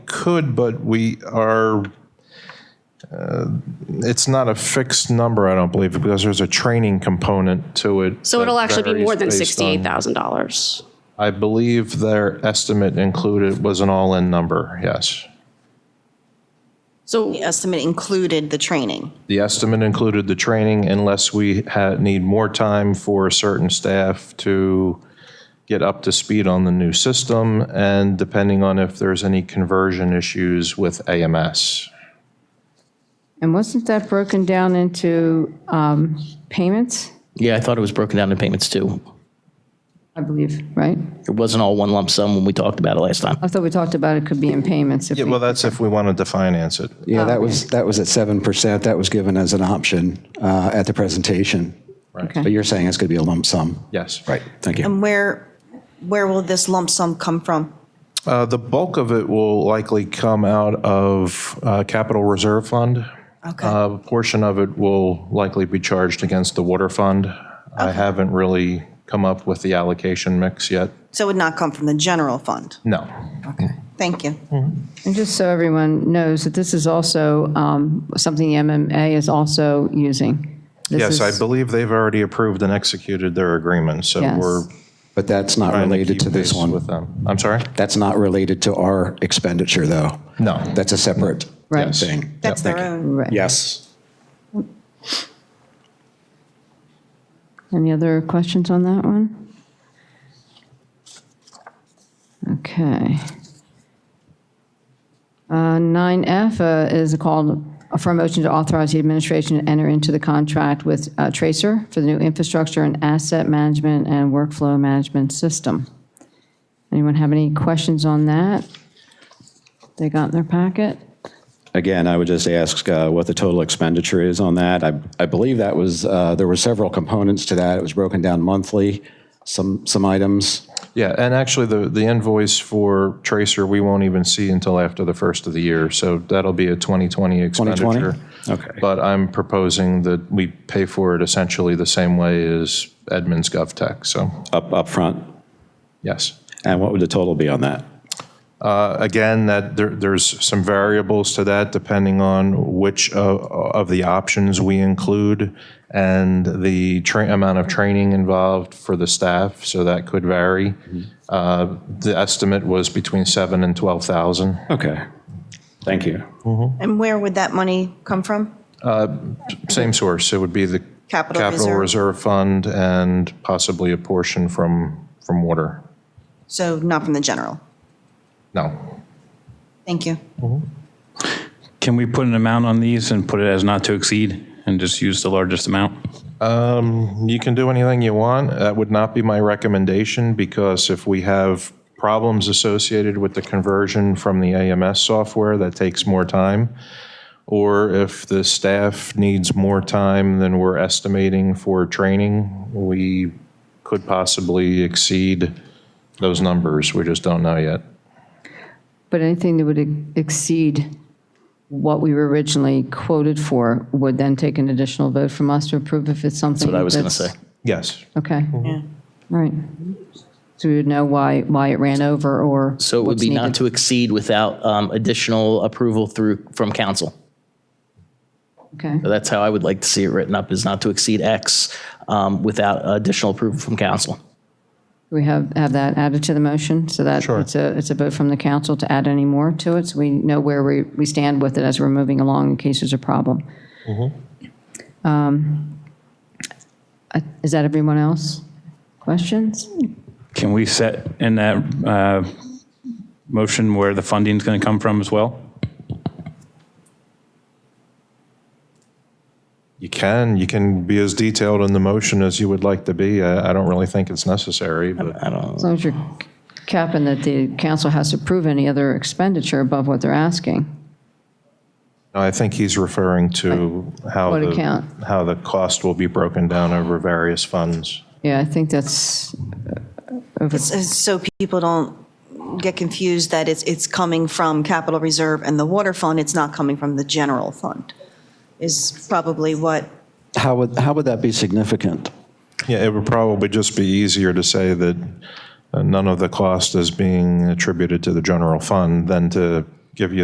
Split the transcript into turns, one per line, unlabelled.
could, but we are, uh, it's not a fixed number, I don't believe, because there's a training component to it.
So it'll
that
actually be more than
varies based on-
$68,000.
I believe their estimate included was an all-in number, yes.
So,
estimate included the training.
The estimate included the training unless we had, need more time for certain staff to get up to speed on the new system and depending on if there's any conversion issues with AMS.
And wasn't that broken down into um, payments,
Yeah, I thought it was broken down in payments too.
I believe, right?
It wasn't all one lump sum when we talked about it last time.
I thought we talked about it could be in payments. if
Yeah,
we-
well, that's if we wanted to finance it.
Yeah,
Um,
that was, that was at 7%. That was given as an option uh, at the presentation.
Okay. Um,
But you're saying it's going to be a lump sum?
Yes.
Right, thank you.
Where, where will this lump sum come from?
Uh, The bulk of it will likely come out of uh, Capital Reserve Fund.
Okay.
Uh, A portion of it will likely be charged against the water fund. I haven't really come up with the allocation mix yet.
So it would not come from the general fund.
No.
Thank you.
Mm,
And just so everyone knows that this is also um, something the MMA is also using. This
Yes, I
is-
believe they've already approved and executed their agreement, so
Yes.
we're
But that's not
trying to
related
keep
to this
pace with
one.
them. I'm sorry?
That's not related to our expenditure, though.
No.
That's a separate
Right.
thing.
That's
Yep,
their
thank you.
own.
Right.
Yes.
Any other questions on that one? Okay. Uh, 9F uh, is a call for a motion to authorize the administration to enter into the contract with uh, Tracer for the new infrastructure and asset management and workflow management system. Anyone have any questions on that? They got in their packet?
Again, I would just ask uh, what the total expenditure is on that. I, I believe that was, uh, there were several components to that. It was broken down monthly, some, some items.
Yeah, and actually, the, the invoice for Tracer, we won't even see until after the first of the year, so that'll be a 2020 expenditure.
2020? Okay.
But I'm proposing that we pay for it essentially the same way as Edmunds GovTech, so,
up, up front,
yes.
And what would the total be on that?
Again, that, there, there's some variables to that depending on which of, of the options we include and the tra- amount of training involved for the staff, so that could vary. Uh, The estimate was between seven and 12,000.
Okay. Thank you.
And where would that money come from?
Same source, it would be the
Capital
Capital
Reserve.
Reserve Fund and possibly a portion from, from water.
So not from the general.
No,
Thank you.
Can we put an amount on these and put it as not to exceed and just use the largest amount?
You can do anything you want. That would not be my recommendation because if we have problems associated with the conversion from the AMS software, that takes more time. Or if the staff needs more time than we're estimating for training, we could possibly exceed those numbers. We just don't know yet.
But anything that would ex- exceed what we were originally quoted for would then take an additional vote from us to approve if it's something
That's what I was going to say.
that's-
Yes.
Okay. All right. So we would know why, why it ran over or
So it would
what's
be not
needed.
to exceed without um, additional approval through, from council.
Okay,
That's how I would like to see it written up, is not to exceed X um, without additional approval from council.
we have, have that added to the motion so that it's a, it's a vote from the council to add any more to it. So we know where we, we stand with it as we're moving along in case there's a problem. Um, I- Is that everyone else? Questions?
Can we set in that uh, motion where the funding's going to come from as well?
You can, you can be as detailed in the motion as you would like to be. I, I don't really think it's necessary, but.
As long as you're capping that the council has to approve any other expenditure above what they're asking.
No, I think he's referring to how
What
the,
account?
how the cost will be broken down over various funds.
Yeah, I think that's,
So- So people don't get confused that it's, it's coming from capital reserve and the water fund. It's not coming from the general fund is probably what,
How would, how would that be significant?
Yeah, it would probably just be easier to say that uh, none of the cost is being attributed to the general fund than to give you